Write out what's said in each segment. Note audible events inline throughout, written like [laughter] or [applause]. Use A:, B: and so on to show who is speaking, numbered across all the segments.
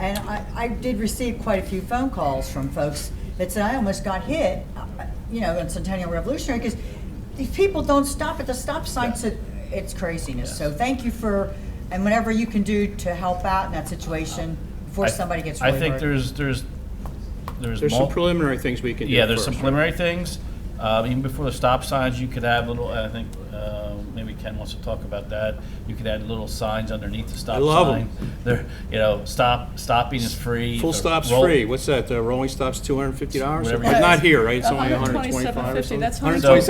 A: And I, I did receive quite a few phone calls from folks that said, I almost got hit, uh, you know, in Centennial Revolutionary, because these people don't stop at the stop signs, it- it's craziness. So thank you for, and whatever you can do to help out in that situation before
B: I-
A: somebody gets really hurt.
B: I think there's, there's, there's.
C: There's some
B: mul-
C: preliminary things we can do.
B: Yeah, there's some
C: first.
B: preliminary things. Uh, Even before the stop signs, you could have little, I think, uh, maybe Ken wants to talk about that. You could add little signs underneath the stop sign.
C: love 'em.
B: They're, you know, stop, stopping is free.
C: Full
B: The
C: stop's
B: roll-
C: free. What's that? uh, Rolling stop's two hundred and fifty dollars?
B: Whatever it
C: Not
B: is.
C: here, right? It's only one hundred and twenty-five or something?
D: $127.50, that's
B: So-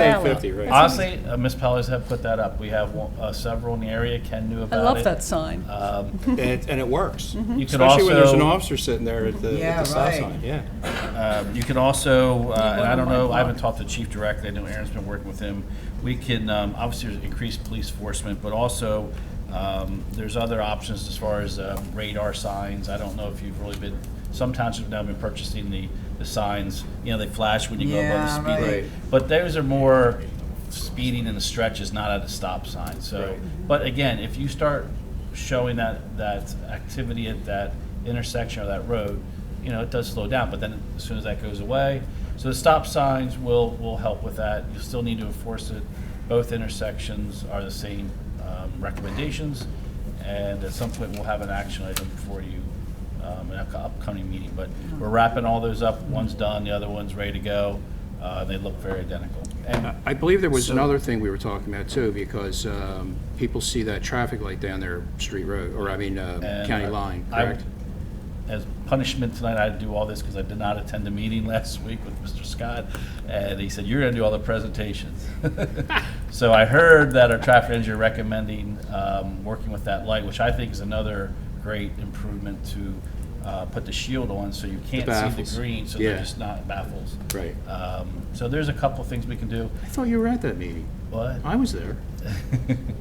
C: $127.50, right?
B: Honestly, uh, Ms. Pelley's have put that up. We have one- uh, several in the area. Ken knew
D: I
B: about it.
D: love that sign.
B: Um,
C: And it, and it works.
B: You could
C: Especially when there's an
B: also-
C: officer sitting there at the, at
A: Yeah,
C: the stop
A: right.
C: sign, Mm-hmm. yeah.
B: Um, You can also, uh, and I don't
D: on my
B: know, I
D: blog.
B: haven't talked to the chief directly, I know Aaron's been working with him. We can, um, obviously, there's increased police enforcement, but also, um, there's other options as far as uh, radar signs. I don't know if you've really been, some townships have now been purchasing the, the signs, you know, they flash when you go above the
A: Yeah,
B: speed
A: right.
B: limit. But those are more speeding in the stretches, not at a stop sign, so. But again, if you start showing that, that activity at that intersection or that road, you know, it does slow down, but then as soon as that goes away, so the stop signs will, will help with that. You still need to enforce it. Both intersections are the same um, recommendations, and at some point, we'll have an action item for you um, in an upcoming meeting. But we're wrapping all those up. One's done, the other one's ready to go. Uh, They look very identical. And
C: I believe there was another thing we were talking about too, because um, people see that traffic light down their street road, or I mean, uh,
B: And
C: county
B: I-
C: line,
B: I-
C: correct?
B: As punishment tonight, I had to do all this because I did not attend the meeting [laughs] last week with Mr. Scott, and he said, you're going to do all the presentations. [laughs] So I heard that our traffic engineer recommending um, working with that light, which I think is another great improvement to uh, put the shield on so you can't see
C: baffles.
B: the green, so they're
C: Yeah.
B: just not baffles.
C: Right.
B: Um, So there's a couple things we can do,
C: I thought you were at that meeting.
B: but,
C: I
B: [laughs]
C: was there.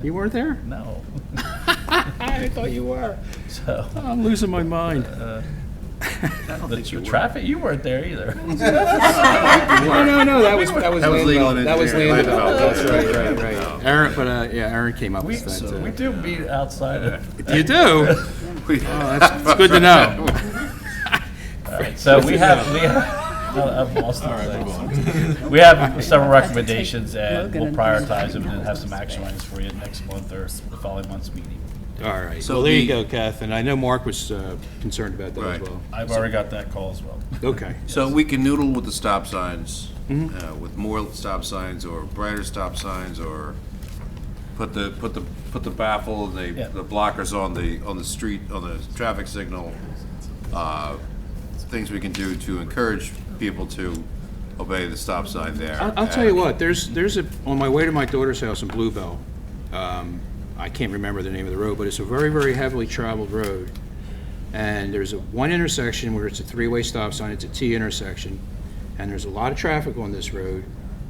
C: You weren't there?
B: no, [laughs]
C: I thought you were.
B: so.
C: I'm losing my mind.
B: The the traffic, you weren't there
D: [laughs]
B: either.
C: No, no, no, that was, that was
E: That was
C: land
E: legal
C: develop- That was land development,
E: engineering. Land development,
C: that's
E: right,
C: right,
E: right,
C: right, right. Aaron, but, uh, yeah, Aaron came up
B: We,
C: with that.
B: we
C: uh,
B: do beat outside of.
C: You do? Oh,
E: [laughs]
C: that's, it's good to know.
B: All right, [laughs] So
D: [laughs]
B: we have, we have, [laughs] I've lost the place. [laughs] We
D: [laughs]
B: have several recommendations and
D: Logan
B: we'll
D: and-
B: prioritize them and have some action items for you next month or the following month's meeting.
C: All right,
E: So
C: well, there you go,
E: the-
C: Kath, and I know Mark was uh, concerned about that as
E: Right.
C: well.
B: I've already got that call as well.
C: Okay,
E: So we can noodle with the stop signs, uh, with more stop signs or brighter stop signs or put the, put the, put the baffle, the,
B: Yeah.
E: the blockers on the, on the street, on the traffic signal. uh, Things we can do to encourage people to obey the stop sign there.
C: I'll, I'll tell you what, there's, there's a, on my way to my daughter's house in Bluebell, um, I can't remember the name of the road, but it's a very, very heavily traveled road. And there's a one intersection where it's a three-way stop sign, it's a T intersection, and there's a lot of traffic on this road,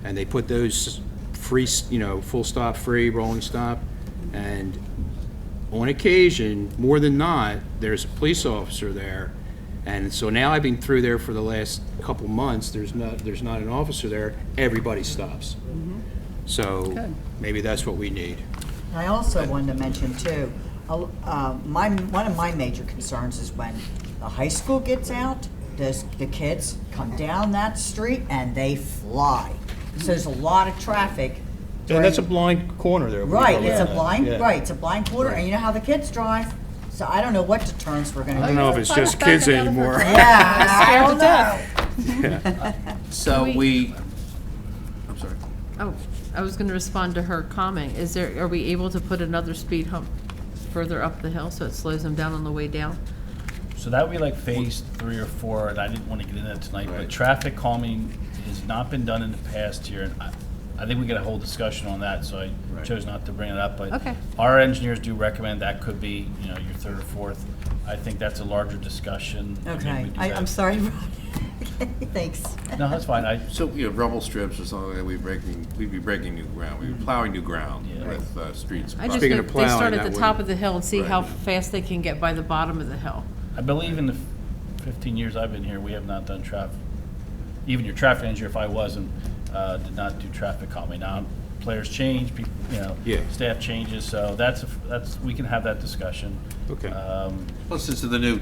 C: and they put those free, s- you know, full stop, free, rolling stop, and on occasion, more than not, there's a police officer there. And so now I've been through there for the last couple months, there's not, there's not an officer there, everybody stops.
A: Mm-hmm.
C: So
D: Good.
C: maybe that's what we need.
A: I also wanted to mention too, a- uh, my, one of my major concerns is when the high school gets out, those, the kids come down that street and they fly. So there's a lot of traffic.
C: And that's a
A: during-
C: blind corner there.
A: Right, it's a blind,
C: Yeah.
A: right, it's a blind quarter, and you know how the kids drive, so I don't know what deterrents we're gonna
C: I don't
A: do.
C: know if it's just kids
D: [laughs]
C: anymore. [laughs]
A: Yeah, I don't know.
E: So
F: we-
E: we, I'm sorry.
F: Oh, I was going to respond to her comment. Is there, are we able to put another speed hump further up the hill so it slows them down on the way down?
B: So that would be like phase three or four, and I didn't want to get into that tonight, but
E: Right.
B: traffic calming has not been done in the past year. And I, I think we got a whole discussion on that, so I chose not to bring it up, but
F: Okay.
B: our engineers do recommend that could be, you know, your third or fourth. I think that's a larger discussion. I mean, we
A: Okay,
B: do
A: I,
B: that.
A: I'm sorry, Rob. [laughs] Thanks.
B: No, that's fine. I,
E: So, you know, rubble strips or something like that, we breaking, we'd be breaking new ground, we'd be plowing new ground
B: Yeah.
E: with uh, streets.
F: I just,
C: Speaking
F: think
C: of
F: they start
C: plowing,
F: at
C: that
F: the top
C: would-
F: of the hill and see how
E: Right.
F: fast they can get by the bottom of the hill.
B: I believe in the fifteen years I've been here, we have not done traffic. Even your traffic engineer, if I wasn't, uh, did not do traffic calming. Now, players change, people, you know,
C: Yeah.
B: staff changes, so that's, a- that's, we can have that discussion.
C: Okay.
B: Um,
E: Listen to the new